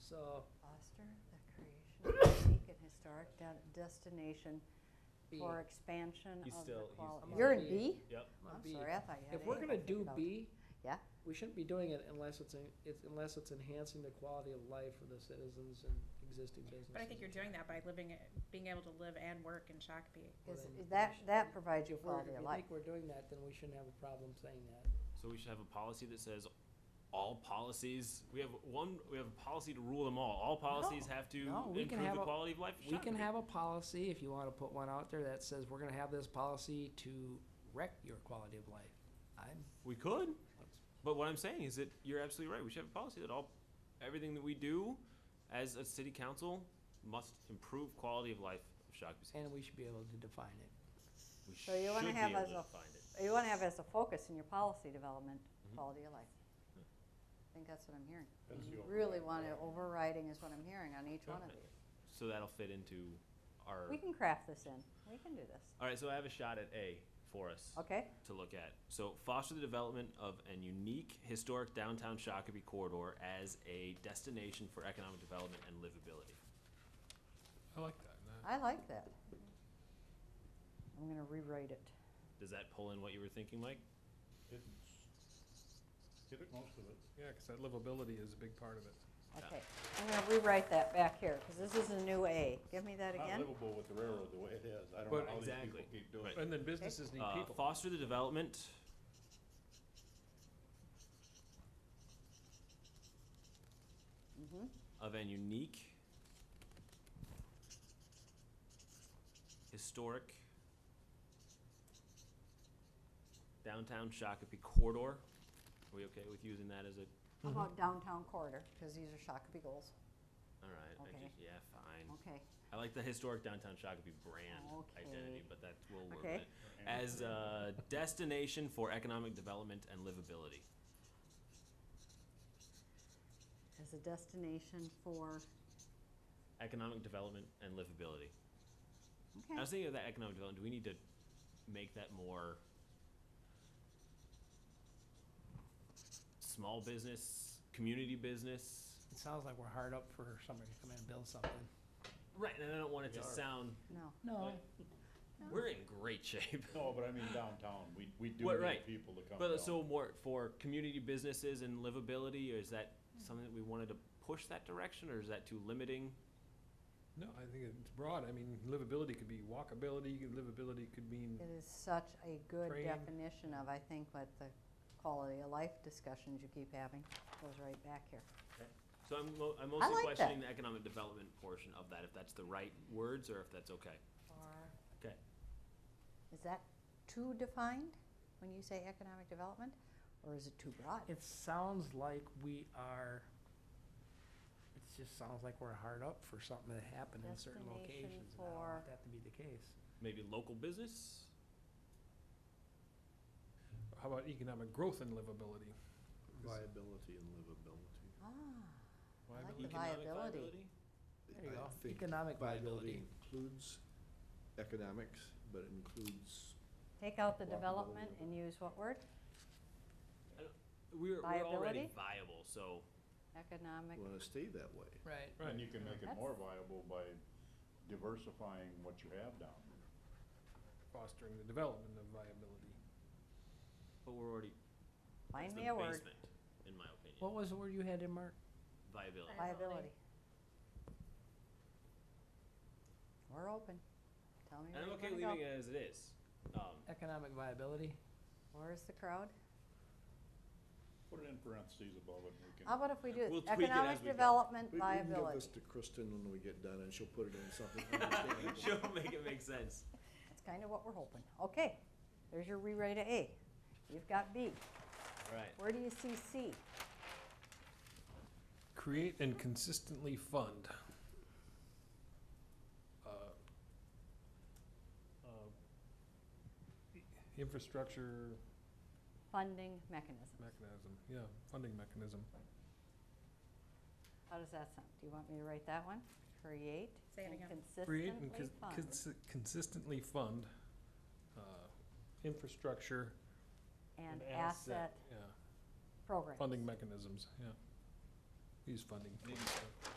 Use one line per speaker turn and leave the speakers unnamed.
So
Foster the creation of a unique and historic de- destination
B,
for expansion
He's
of the
still- he's-
quality.
he's
You're
on
in
B.
B?
Yep.
on
I'm
B.
sorry, I thought you had A.
If we're gonna do B.
Yeah.
We shouldn't be doing it unless it's, en- it's, unless it's enhancing the quality of life for the citizens and existing businesses.
But I think you're doing that by living, it- being able to live and work in Shakopee.
Is,
Well, then
that,
we should-
that provides you
If we're, if
quality of
you
life.
think we're doing that, then we shouldn't have a problem saying that.
So we should have a policy that says all policies, we have one, we have a policy to rule them all. All policies have to
no, we can
improve
have
the
a-
quality of life. of
We can
Shakopee.
have a policy, if you wanna put one out there, that says we're gonna have this policy to wreck your quality of life. I'm,
We could, but what I'm saying is that you're absolutely right. We should have a policy that all, everything that we do as a city council must improve quality of life of Shakopee.
and we should be able to define it.
We
So you wanna
should be
have
able
as
to
a-
find it.
You wanna have as a focus in your policy development,
Mhm.
Mm-hmm.
quality of life. I think that's what I'm hearing.
That's
You
the
Really wanna, overriding is what I'm hearing on each one of
Yeah.
these.
So that'll fit into our,
We can craft this in. We can do this.
alright, so I have a shot at A for us.
Okay?
to look at. So foster the development of an unique historic downtown Shakopee corridor as a destination for economic development and livability.
I like that. no.
I like that. I'm gonna rewrite it.
Does that pull in what you were thinking, Mike?
It's- Get it, most of it. Yeah, 'cause that livability is a big part of it.
Okay, I'm gonna rewrite that back here, because this is a new A. Give me that
Not
again.
livable with the
Oh,
railroad the way it is. I don't
But-
know how these people
Exactly.
keep doing
Right.
it.
And then businesses need
Uh,
people.
foster the development.
Mhm.
Of an unique historic downtown Shakopee corridor. Are we okay with using that as a,
How about downtown corridor, because these are Shakopee goals.
alright, I
Okay.
just, yeah, fine.
Okay,
I like the historic downtown Shakopee brand identity,
Okay.
but that will work.
Okay.
with it. As a destination for economic development and livability.
as a destination for,
Economic development and livability. I
okay,
was thinking of that economic development. Do we need to make that more small business, community business?
It sounds like we're hard up for somebody to come in and build something.
Right, and I don't want it
We
to
are.
sound
no.
No,
Like- we're in great shape.
Uh, No, but I mean downtown, we, we do
What,
need
right.
people to come down.
But uh, so more for community businesses and livability, or is that something that we wanted to push that direction, or is that too limiting?
No, I think it's broad. I mean, livability could be walkability, livability could mean,
It is such a good
Train.
definition of, I think, what the quality of life discussions you keep having goes right back here.
So I'm, mo- I'm mostly
like that.
questioning the economic development portion of that, if that's the right words or if that's okay.
Or-
Okay.
Is that too defined when you say economic development, or is it too broad?
it sounds like we are, it just sounds like we're hard up for something that happened in certain
Destination
locations. and I don't want
for-
that to be the case.
Maybe local business?
how about economic growth and livability?
Viability and livability.
Ah, I like the
Viability.
viability.
Economic
There you
I
go.
think
Economic viability.
Viability includes economics, but it includes
Take out the
Walkability.
development and use what word?
We're, we're already
Viability?
viable, so
Economic.
want to stay that way.
Right.
And you can make it
That's-
more viable by diversifying what you have down.
Fostering the development of viability.
but we're already,
Find
it's the
me a word.
basement, in my opinion,
What was the word you had in, Mark?
viability.
Liability. We're open. Tell me
And I'm
where
okay
you wanna
leaving
go.
it as it is. Um,
Economic viability?
Where's the crowd?
Put it in parentheses above it, and we can.
How about if we do
We'll
it,
tweak it as
economic
we go.
development
We- We can give
liability?
this to Kristen when we get done, and she'll put it in something understandable.
She'll make it make sense.
That's kind of what we're hoping. Okay, there's your rewrite of A. You've got B.
Alright,
Where do you see C?
Create and consistently fund. uh, uh, i- uh, Infrastructure
Funding mechanism.
mechanism, yeah, funding mechanism.
How does that sound? Do you want me to write that one? Create
Say it
and
again.
consistently
Create and cons-
fund.
consi- consistently fund uh, infrastructure
And asset
Yeah,
programs.
funding mechanisms, yeah. Use funding. for
Maybe
stuff.